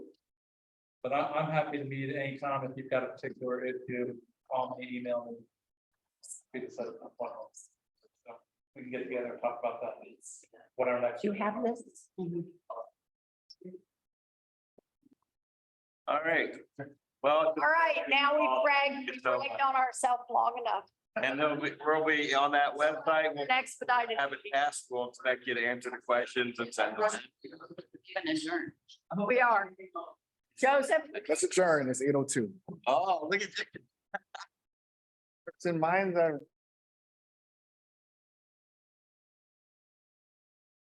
But I, I'm happy to meet at any time if you've got a particular issue, call me, email me. We can set up a phone. So We can get together and talk about that, what our next. Do you have this? All right, well, All right, now we've bragged, we've It's over. bragged on ourselves long enough. and then we- we'll be on that website, we'll Expedited. have it asked, we'll expect you to answer the questions and send them. We are. Joseph, Let's adjourn. It's eight oh two. Oh, look at you. It's in mind that